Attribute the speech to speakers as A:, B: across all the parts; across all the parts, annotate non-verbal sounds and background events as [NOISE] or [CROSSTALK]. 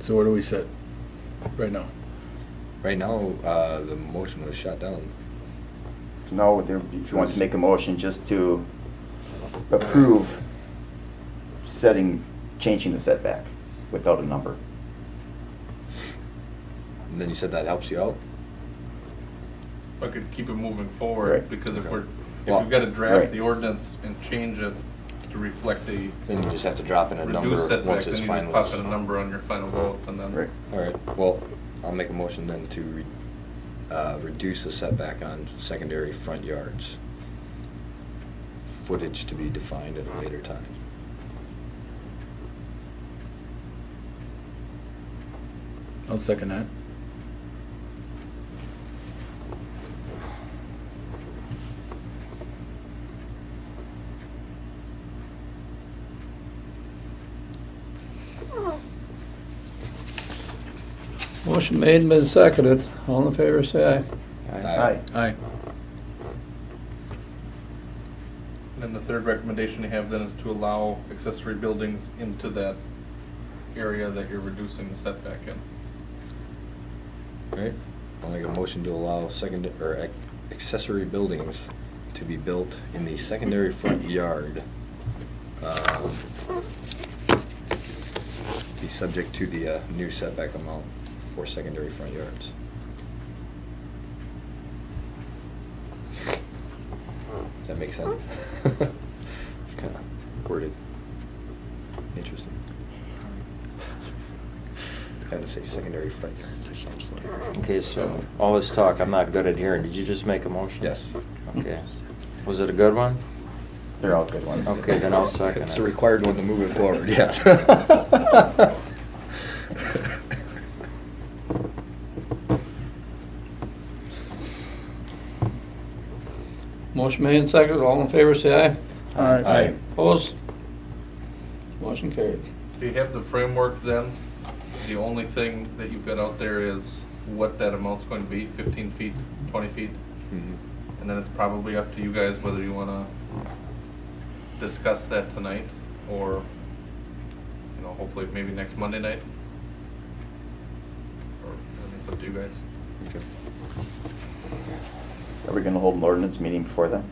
A: So where do we sit right now?
B: Right now, uh, the motion was shot down.
C: No, there- if you want to make a motion just to approve setting, changing the setback without a number.
B: And then you said that helps you out?
D: I could keep it moving
C: Right.
D: forward, because if we're, if
B: Well,
D: we've got to draft
C: right.
D: the ordinance and change it to reflect a
B: Then you just have to drop in a number
D: reduced setback,
B: once
D: then
B: it's
D: you just pop in a
B: finalized.
D: number on your final vote, and then.
C: Right.
B: All right, well, I'll make a motion then to, re- uh, reduce the setback on secondary front yards. Footage to be defined at a later time.
A: I'll second that.
E: Motion made and been seconded. All in favor, say
B: Aye.
A: Aye.
D: And then the third recommendation you have then is to allow accessory buildings into that area that you're reducing the setback in.
B: All right, I'll make a motion to allow second, or ac- accessory buildings to be built in the secondary front yard. um, Be subject to the uh, new setback amount for secondary front yards. Does that make sense? [LAUGHS] It's kind of worded. Interesting. [LAUGHS] Had to say secondary front yard or something.
F: Okay, so all this talk, I'm not good at hearing. Did you just make a motion?
B: Yes.
F: Okay. Was it a good one?
C: They're all good ones.
F: Okay, then I'll second
B: It's
F: it.
B: the required one to move it
E: [LAUGHS]
B: forward, yes.
E: aye. Motion made and seconded. All in favor, say aye.
B: Aye.
E: Opposed? Motion carried.
D: Do you have the framework then? The only thing that you've got out there is what that amount's going to be, fifteen feet, twenty feet?
B: Mhm.
D: And then it's probably up to you guys whether you wanna discuss that tonight or, you know, hopefully maybe next Monday night. Or, I mean, it's up to you guys.
B: Okay.
C: Are we gonna hold an ordinance meeting before then?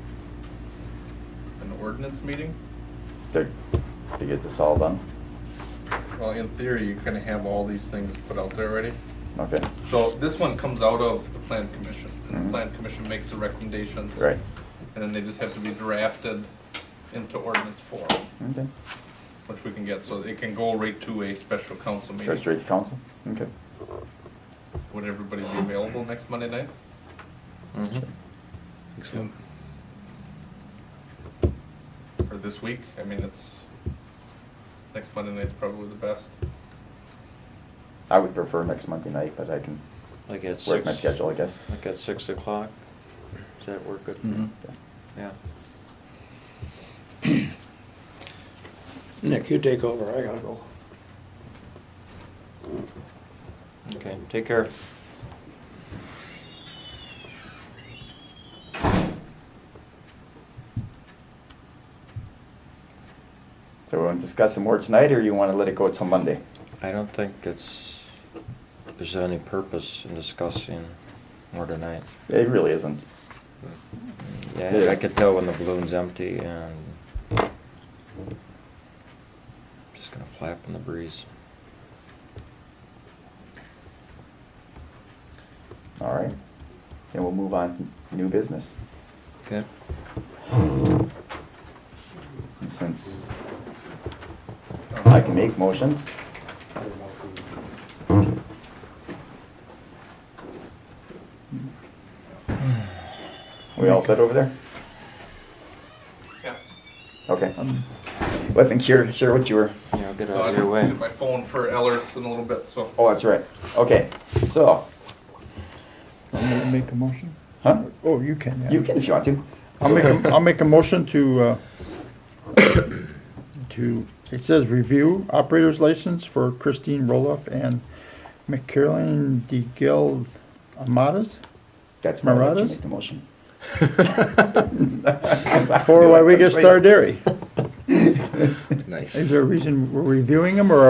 D: An ordinance meeting?
C: They're, to get this all done?
D: Well, in theory, you kinda have all these things put out there already.
C: Okay,
D: So this one comes out of the plan commission, and the
C: Mhm.
D: plan commission makes the recommendations.
C: right.
D: And then they just have to be drafted into ordinance form,
C: Okay.
D: which we can get, so it can go right to a special council meeting.
C: Go straight to council? Okay.
D: Would everybody be available next Monday night?
F: Mhm.
D: Or this week? I mean, it's, next Monday night's probably the best.
C: I would prefer next Monday night, but I can
F: Like at six.
C: work my schedule, I guess.
F: Like at six o'clock? Does that work good?
C: Mm-hmm.
A: Mhm.
F: Yeah.
E: [CLEARS THROAT] Nick, you take over. I gotta go.
F: Okay, take care.
C: So we want to discuss some more tonight, or you want to let it go till Monday?
F: I don't think it's, there's any purpose in discussing more tonight.
C: It really isn't.
F: Yeah, I could tell when the balloon's empty and just gonna flap in the breeze.
C: All right. Then we'll move on to new business.
F: Okay.
C: And since I
D: Um,
C: can make motions, we all set over there?
D: Yeah.
C: Okay. Wasn't sure, sure what you were.
F: Yeah, I'll get
D: Uh,
F: out
D: I
F: of your way.
D: My phone for Ellers in a little bit, so.
C: Oh, that's right. Okay, so,
G: I'm gonna make a motion?
C: huh?
G: Oh, you can, yeah.
C: You can if you want to.
G: I'll make, a- I'll make a motion to, uh, to, it says review operator's license for Christine Roloff and McCarolyn DeGil Amadas.
C: That's my right. You
G: Marauders?
C: make the motion. [LAUGHS]
G: For Waiwaga Star Dairy.
B: Nice.
C: [LAUGHS]
G: Is there a reason we're reviewing them or